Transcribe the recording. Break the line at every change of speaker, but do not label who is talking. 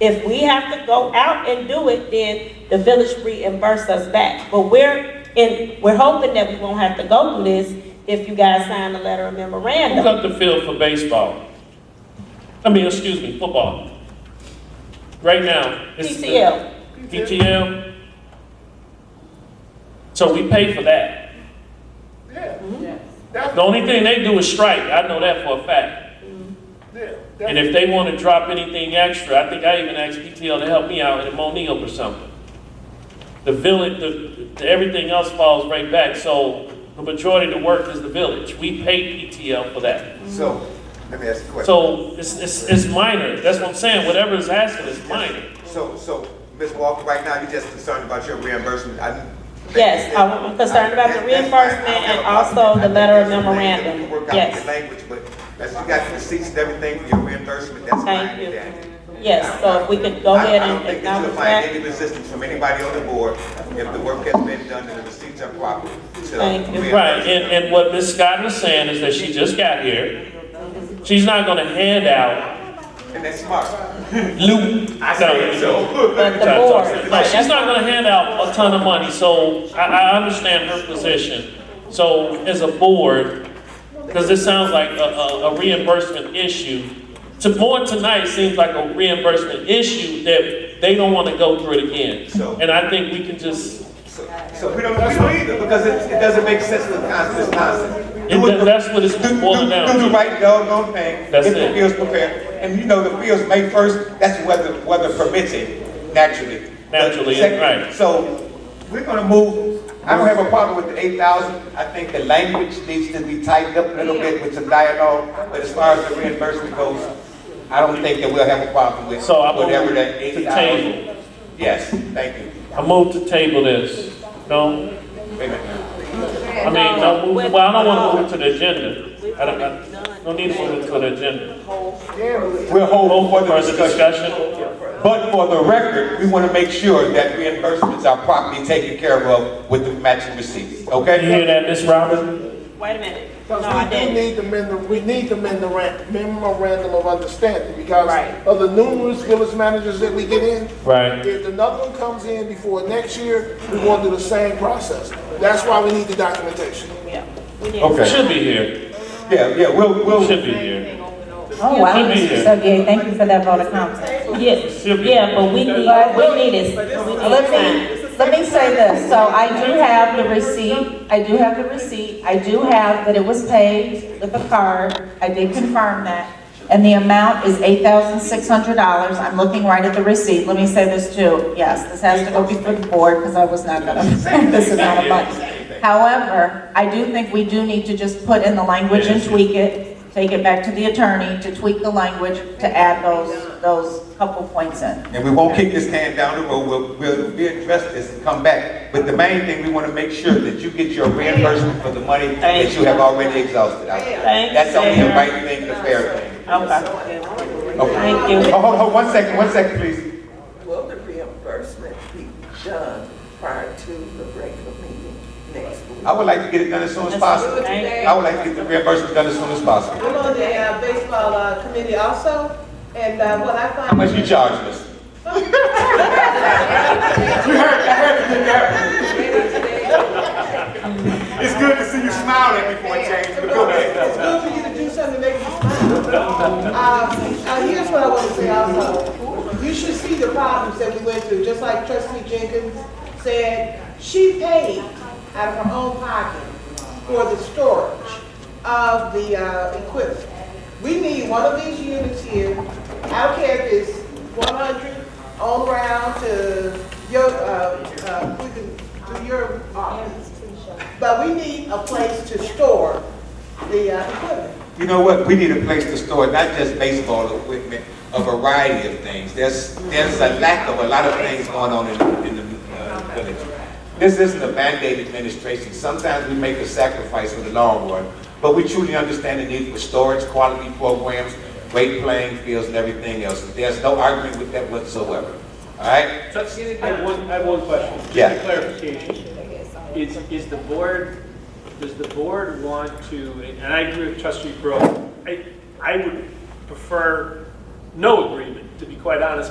If we have to go out and do it, then the village reimburse us back. But we're, and we're hoping that we won't have to go through this if you guys sign a letter of
Who
memorandum.
got the field for baseball? I mean, excuse me, football. Right now. it's the-
PTL.
PTL? So we pay for that.
Yeah,
Yes.
that's,
The only thing they do is strike, I know that for a fact.
yeah,
And
that's,
if they wanna drop anything extra, I think I even asked PTL to help me out in Monique or something. The village, the, the- everything else falls right back, so the majority of the work is the village. We pay PTL for that.
So, let me ask you a question.
So it's, it's, it's minor. That's what I'm saying. Whatever is asking is minor.
So, so, Ms. Walker, right now, you're just concerned about your reimbursement? I didn't-
Yes, I'm concerned about the
That's fine. I don't
reimbursement and
have a problem.
also the
I think
letter of
there's some things that
memorandum.
we can work out
Yes.
with the Language, but as you got the receipts and everything for your reimbursement, that's fine.
Thank you.
with that.
Yes, so if we could go
I-
ahead
I don't
and
think that
acknowledge
you'll find
that.
any resistance from anybody on the board if the work has been done and the receipts are proper. to
Thank you.
Right. And, and what Ms. Scott is saying is that she just got here. She's not going to hand out
And that's smart.
loot.
I said
No.
But
so.
the
Sorry,
board,
sorry.
right,
No, she's
that's-
not going to hand out a ton of money. So I, I understand her position. So as a board, because this sounds like a, a, a reimbursement issue. To more tonight seems like a reimbursement issue that they don't want to go through it again.
So-
And I think we can just
So so we don't, we don't either, because it, it doesn't make sense with Constance Thompson.
And that- that's what it's
Do, do,
boiling down
do the
to.
right doggone thing, get
That's
the
it.
fields prepared, and you know, the fields May first, that's weather, weather permitting, naturally.
Naturally,
The second-
right.
So, we're gonna move, I don't have a problem with the eight thousand, I think the language needs to be tightened up a little bit with some dialogue, but as far as the reimbursement goes, I don't think that we'll have a problem with
So I move
whatever that
to
eight thousand.
table.
Yes, thank you,
I move to table this. No,
wait a minute.
I mean, no, move- well, I don't want to move it to the agenda. I don't, I, no need to move it to the agenda.
We'll hold on for the
Further
discussion.
discussion?
But for the record, we want to make sure that reimbursements are properly taken care of with the matching receipts,
You hear
okay?
that, Ms. Robin?
Wait a minute. No,
because
I
we do
didn't.
need the memorandum, we need the memorandum, memorandum of understanding because
Right.
of the numerous village managers that we get in.
Right.
If another one comes in before next year, we want to do the same process. That's why we need the documentation.
Yeah, we need-
Okay.
Should be here.
Yeah, yeah, we'll, we'll,
Should be here.
Oh, wow.
Should be here.
So, yeah, thank you for that vote of confidence.
Yes,
Should be.
yeah, but we need, we need it. We need
Let
time.
me, let me say this, so I do have the receipt, I do have the receipt, I do have that it was paid with a card, I did confirm that, and the amount is eight thousand six hundred dollars, I'm looking right at the receipt, let me say this too, yes, this has to go before the board, because I was not gonna, this amount of money. However, I do think we do need to just put in the language and tweak it, take it back to the attorney to tweak the language, to add those, those couple points in.
and we won't kick this can down the road, we'll, we'll, we'll address this and come back. But the main thing, we want to make sure that you get your reimbursement for the money that you have already exhausted. I-
Thank you,
That's only the
Sarah.
right thing, the fair thing.
Okay,
Okay.
thank you.
Oh, hold, hold, one second, one second, please.
Will the reimbursement be done prior to the regular meeting next week?
I would like to get it done as soon as possible. I would like to get the reimbursement done as soon as possible.
I'm on the uh, baseball uh, committee also, and uh, what I
How
find.
much you charge us? It's good to see you smiling before it changes, but go
It's
ahead.
good for you to do something to make me smile. Uh, uh, Here's what I want to say also. You should see the problems that we went through, just like trustee Jenkins said, she paid out of her own pocket for the storage of the uh, equipment. We need one of these units here, I don't care if it's 100 on round to your, uh, uh, we can do your office. But we need a place to store the uh, equipment.
You know what, we need a place to store not just baseball equipment, a variety of things. There's, there's a lack of a lot of things going on in, in the uh, village. This isn't a Band-Aid administration. Sometimes we make a sacrifice for the long run, but we truly understand the need for storage, quality programs, great playing fields and everything else. There's no argument with that whatsoever, all right?
I have one, I have one question.
Yeah.
Just a clarification. Is, is the board, does the board want to, and I agree with trustee Brewer, I, I would prefer no agreement, to be quite honest,